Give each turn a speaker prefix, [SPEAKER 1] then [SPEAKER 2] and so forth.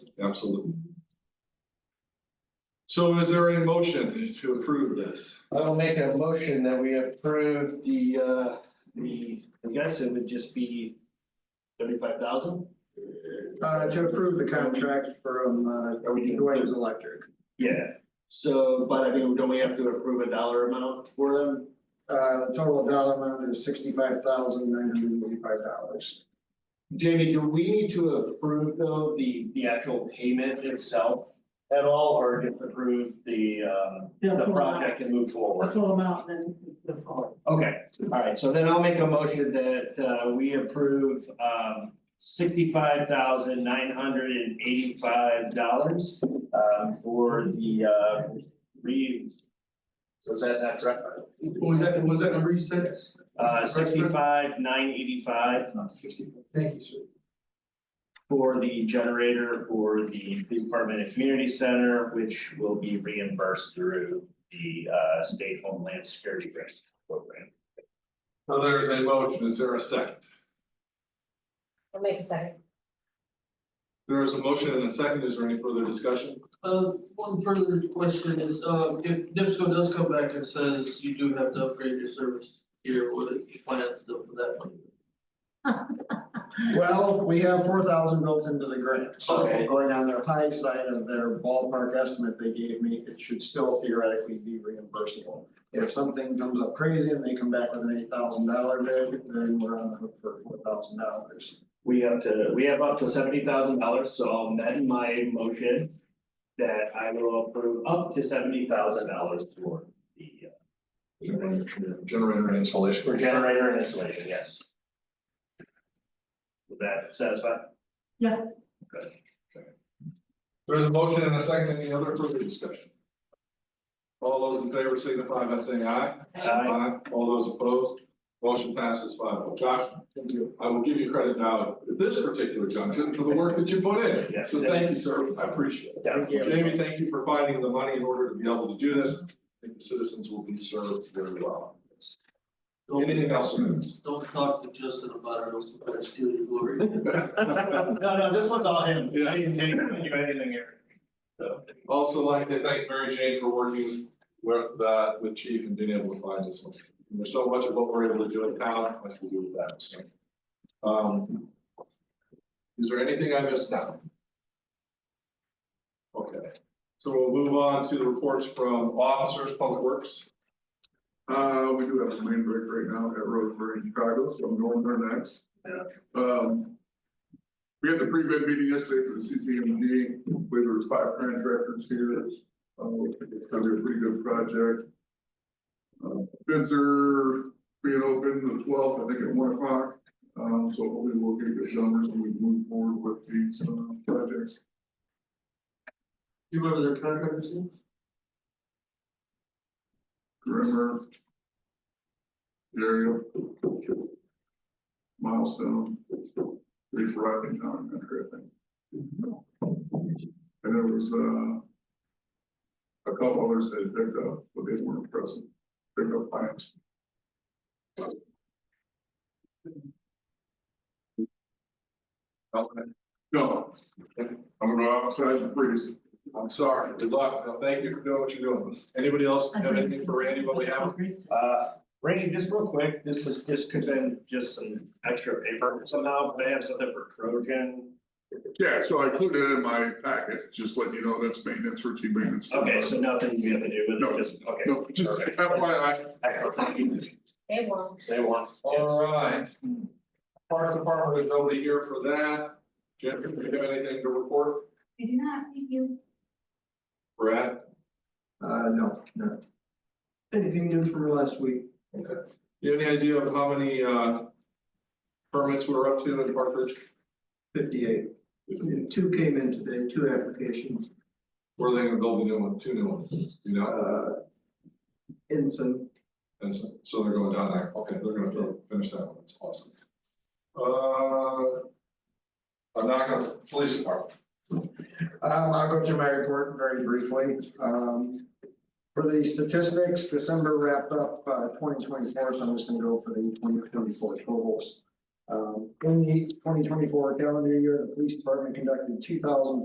[SPEAKER 1] absolutely. So is there a motion to approve this?
[SPEAKER 2] I will make a motion that we approve the uh, the, I guess it would just be thirty-five thousand?
[SPEAKER 3] Uh, to approve the contract from, uh,
[SPEAKER 2] Are we doing?
[SPEAKER 3] Dwayne's Electric.
[SPEAKER 2] Yeah, so, but I mean, don't we have to approve a dollar amount for them?
[SPEAKER 3] Uh, the total dollar amount is sixty-five thousand nine hundred and eighty-five dollars.
[SPEAKER 2] Jamie, do we need to approve though the the actual payment itself at all, or just approve the um
[SPEAKER 4] Yeah,
[SPEAKER 2] the
[SPEAKER 4] full amount.
[SPEAKER 2] project and move forward?
[SPEAKER 4] That's all amount then the call.
[SPEAKER 2] Okay, all right, so then I'll make a motion that uh we approve um sixty-five thousand nine hundred and eighty-five dollars um for the uh re. So is that that correct?
[SPEAKER 1] What was that, was that number you said?
[SPEAKER 2] Uh sixty-five nine eighty-five
[SPEAKER 3] Thank you, sir.
[SPEAKER 2] for the generator for the police department and community center, which will be reimbursed through the uh state homeland security grant program.
[SPEAKER 1] So there's a motion, is there a second?
[SPEAKER 5] I'll make a second.
[SPEAKER 1] There is a motion and a second, is there any further discussion?
[SPEAKER 4] Uh, one further question is, uh, if NIPSCO does come back and says you do have to upgrade your service here, what are your plans though for that money?
[SPEAKER 3] Well, we have four thousand built into the grant, so
[SPEAKER 4] Okay.
[SPEAKER 3] going on their high side of their ballpark estimate they gave me, it should still theoretically be reimbursable. If something comes up crazy and they come back with an eight thousand dollar bid, then we're on the hook for four thousand dollars.
[SPEAKER 2] We have to, we have up to seventy thousand dollars, so I'll amend my motion. That I will approve up to seventy thousand dollars for the uh,
[SPEAKER 1] Generator installation.
[SPEAKER 2] for generator and installation, yes. Would that satisfy?
[SPEAKER 1] There's a motion and a second, any other further discussion? All those in favor signify by saying aye.
[SPEAKER 2] Aye.
[SPEAKER 1] All those opposed, motion passes five oh. Josh,
[SPEAKER 3] Thank you.
[SPEAKER 1] I will give you credit now at this particular junction for the work that you put in.
[SPEAKER 2] Yes.
[SPEAKER 1] So thank you, sir, I appreciate it.
[SPEAKER 2] Thank you.
[SPEAKER 1] Jamie, thank you for finding the money in order to be able to do this. I think the citizens will be served very well.
[SPEAKER 4] Don't,
[SPEAKER 1] Anything else? in this?
[SPEAKER 4] don't talk to Justin about it, or else he'll try to steal your glory.
[SPEAKER 2] No, no, this one's all him.
[SPEAKER 1] Yeah.
[SPEAKER 2] He didn't do anything- do anything here. So,
[SPEAKER 1] Also like to thank Mary Jane for working with, uh, with Chief and being able to find this one. And There's so much of what we're able to do in town, much to do with that, so. Um. Is there anything I missed out? Okay, so we'll move on to the reports from officers, public works.
[SPEAKER 6] Uh, we do have a rain break right now at Roseburg in Chicago, so I'm going there next.
[SPEAKER 2] Yeah.
[SPEAKER 6] Um. We had the pre-bid meeting yesterday for the CCMD, where there was five contractors here, uh, it's gonna be a pretty good project. Uh, bids are being open the twelfth, I think at one o'clock, um, so hopefully we'll get good numbers and we move forward with these, uh, projects.
[SPEAKER 4] You remember their contractors name?
[SPEAKER 6] Grimmer. Area. Milestone. They forgot the town, that kind of thing. And there was, uh. A couple others that had picked up, but they weren't present, picked up plants.
[SPEAKER 1] Okay,
[SPEAKER 6] No, I'm gonna go outside and freeze.
[SPEAKER 1] I'm sorry, good luck, Now, thank you for doing what you're doing. Anybody else have anything for Randy, what we have?
[SPEAKER 2] Uh, Randy, just real quick, this is, this could have been just some extra paper somehow, but I have something for Trojan.
[SPEAKER 6] Yeah, so I included it in my packet, just letting you know that's maintenance, routine maintenance.
[SPEAKER 2] Okay, so nothing we have to do with
[SPEAKER 6] No.
[SPEAKER 2] it, just, okay.
[SPEAKER 6] No, just
[SPEAKER 2] Perfect.
[SPEAKER 6] FYI,
[SPEAKER 2] Excellent, thank you.
[SPEAKER 5] They won't.
[SPEAKER 2] They want.
[SPEAKER 1] All right. Park Department, there's nobody here for that. Jim, do you have anything to report?
[SPEAKER 7] I do not, thank you.
[SPEAKER 1] Brad?
[SPEAKER 3] Uh, no, no. Anything new from last week?
[SPEAKER 1] You have any idea of how many uh permits we're up to in Park Ridge?
[SPEAKER 3] Fifty-eight. Two came in today, two applications,
[SPEAKER 1] Where are they gonna build a new one, two new ones, you know,
[SPEAKER 3] uh, Ensign,
[SPEAKER 1] and so, so they're going down there, okay, they're gonna throw- finish that one, that's awesome. Uh. I'm not gonna, police department,
[SPEAKER 3] Um, I'll go through my report very briefly. Um, for the statistics, December wrapped up, uh, twenty twenty-four, so I'm just gonna go for the twenty twenty-four totals. Um, in the twenty twenty-four calendar year, the police department conducted two thousand